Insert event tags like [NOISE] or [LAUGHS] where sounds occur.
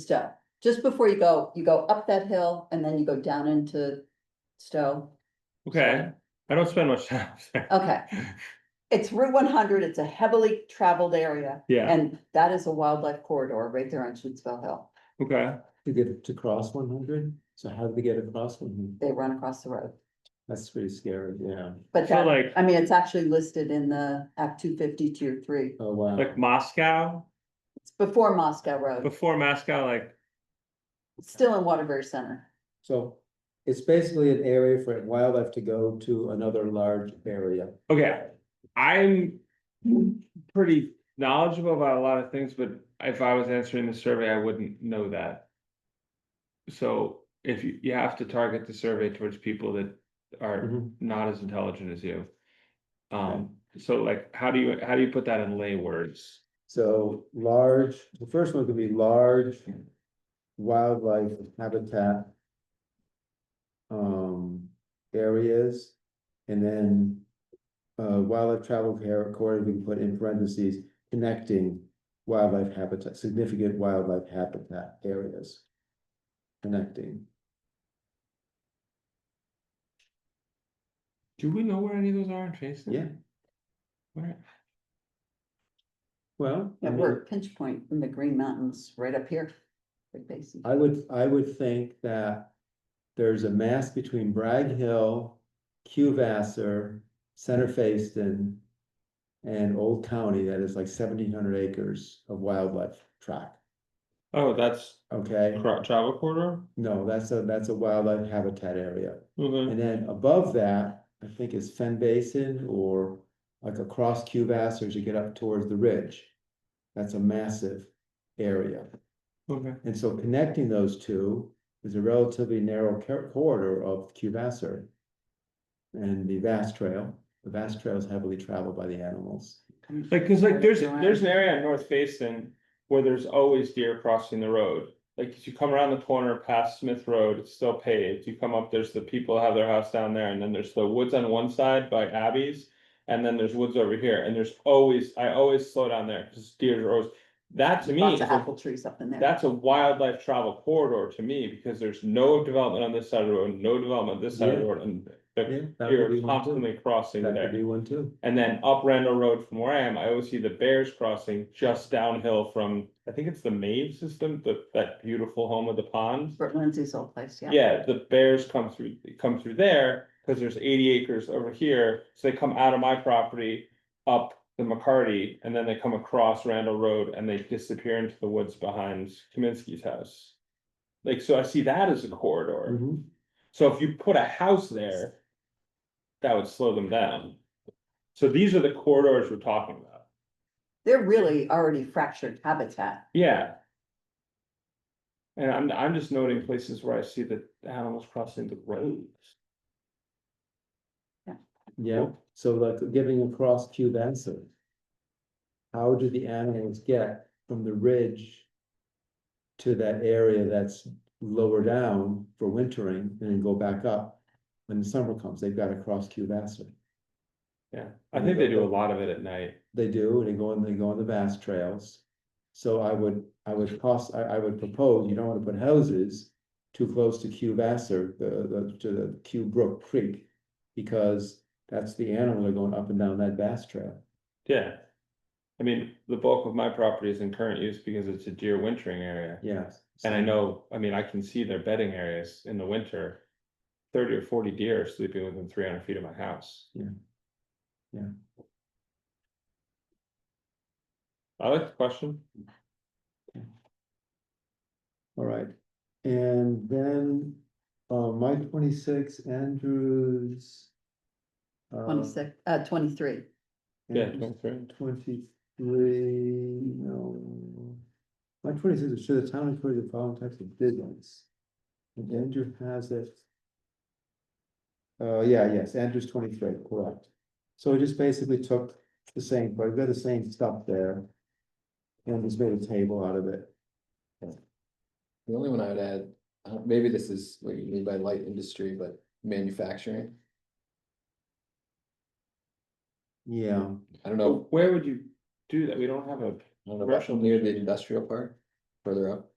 Stowe. Just before you go, you go up that hill and then you go down into Stowe. Okay, I don't spend much time [LAUGHS] there. Oh, Okay. It's Route one hundred. It's a heavily traveled area Yeah, and that is a wildlife corridor right there on Schutzfeld Hill. okay, To get to cross one hundred, so how do they get across one hundred? They run across the road. That's pretty scary, yeah. But So, that, like- I mean, it's actually listed in the Act two fifty tier three. Oh, wow. like Moscow, It's before Moscow Road, before Moscow, like, still in Waterbury Center. So it's basically an area for wildlife to go to another large area. okay, I'm. Pretty knowledgeable about a lot of things, but if I was answering the survey, I wouldn't know that. So if you, you have to target the survey towards people that are Mhm. not as intelligent as you. Um, so like, how do you, how do you put that in lay words? So large, the first one could be large wildlife habitat. Um, areas, and then. Uh, wildlife travel care corridor, we can put in parentheses, connecting wildlife habitat, significant wildlife habitat areas. Connecting, Do we know where any of those are in Jason? yeah, Where? well. I Yeah, mean- we're at pinch point in the Green Mountains right up here. Big basin. I would, I would think that there's a mass between Bragg Hill, Cuvasser, Center Facein. And Old County that is like seventeen hundred acres of wildlife track, Oh, that's okay? Cro- travel corridor? No, that's a, that's a wildlife habitat area. Mhm. And then above that, I think is Fen Basin or like across Cuvasser as you get up towards the ridge. That's a massive area. Okay. And so connecting those two is a relatively narrow cor- corridor of Cubasser. And the vast trail, the vast trail is heavily traveled by the animals. Like, cause like, there's, Joanne. there's an area on North Basin where there's always deer crossing the road. Like, if you come around the corner past Smith Road, it's still paved, you come up, there's the people have their house down there, and then there's the woods on one side by Abby's. And then there's woods over here, and there's always, I always slow down there, cause deer are always, that to me Lots is of a apple trees up in there. That's a wildlife travel corridor to me, because there's no development on this side of the road, no development on this side of the Yeah. road, and. Yeah, the- that would You're be one too. constantly crossing That could there, be one too. and then up Randall Road from where I am, I always see the bears crossing just downhill from, I think it's the Mave system, the, that beautiful home with the ponds. Bert Lindsey's old place, yeah. Yeah, the bears come through, come through there, cause there's eighty acres over here, so they come out of my property. Up the McCarty, and then they come across Randall Road and they disappear into the woods behind Kaminsky's house. Like, so I see that as a corridor, Mhm. so if you put a house there. That would slow them down. So these are the corridors we're talking about, They're really already fractured habitat. yeah. And I'm, I'm just noting places where I see the animals crossing the roads. Yeah, so like giving across Cubasser. How do the animals get from the ridge? To that area that's lower down for wintering and then go back up. When the summer comes, they've got to cross Cubasser. Yeah, I think they do a lot of it at night. They do, they go on, they go on the vast trails. So I would, I would cost, I, I would propose, you don't wanna put houses too close to Q Vassar, the, the, to the Q Brook Creek. Because that's the animal are going up and down that vast trail. Yeah. I mean, the bulk of my property is in current use because it's a deer wintering area. Yes. And I know, I mean, I can see their bedding areas in the winter. Thirty or forty deer are sleeping within three hundred feet of my house. Yeah. Yeah. I like the question. All right, and then, uh, my twenty-six, Andrews. uh, Twenty-six, uh, twenty-three. Yeah, Andrews 23. Twenty-three, no. My twenty-six is should the town encourage the following types of business? And Andrew has it. Uh, yeah, yes, Andrew's twenty-three, correct. So we just basically took the same, but we've got the same stuff there. And just made a table out of it. The only one I would add, uh, maybe this is what you mean by light industry, but manufacturing, Yeah, I don't But know, Where would you do that? We don't have a, I don't know, Commercial about near the industry. industrial park, further up.